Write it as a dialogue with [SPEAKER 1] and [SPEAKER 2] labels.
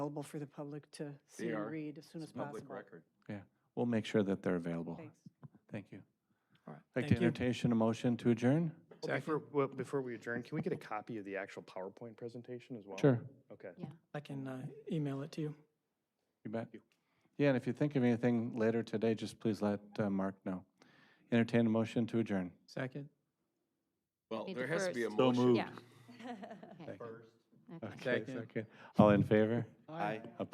[SPEAKER 1] available for the public to see
[SPEAKER 2] are.
[SPEAKER 1] and read as soon as
[SPEAKER 2] Public
[SPEAKER 1] possible.
[SPEAKER 2] record.
[SPEAKER 3] Yeah, we'll make sure that they're available.
[SPEAKER 1] Thanks.
[SPEAKER 3] Thank you.
[SPEAKER 2] All right.
[SPEAKER 3] I'd like to
[SPEAKER 1] you.
[SPEAKER 3] entertain a motion to adjourn?
[SPEAKER 4] Well, Before, well, before we adjourn, can we get a copy of the actual PowerPoint presentation as well?
[SPEAKER 3] Sure,
[SPEAKER 4] Okay.
[SPEAKER 5] I can uh, email it to you.
[SPEAKER 3] you bet. Yeah, and if you think of anything later today, just please let uh, Mark know. Entertain a motion to adjourn.
[SPEAKER 5] Second?
[SPEAKER 2] Well,
[SPEAKER 6] Need
[SPEAKER 2] there
[SPEAKER 6] the
[SPEAKER 2] has to be a
[SPEAKER 6] first.
[SPEAKER 2] motion.
[SPEAKER 6] Yeah. Okay.
[SPEAKER 3] Okay, second. All in favor?
[SPEAKER 5] Aye.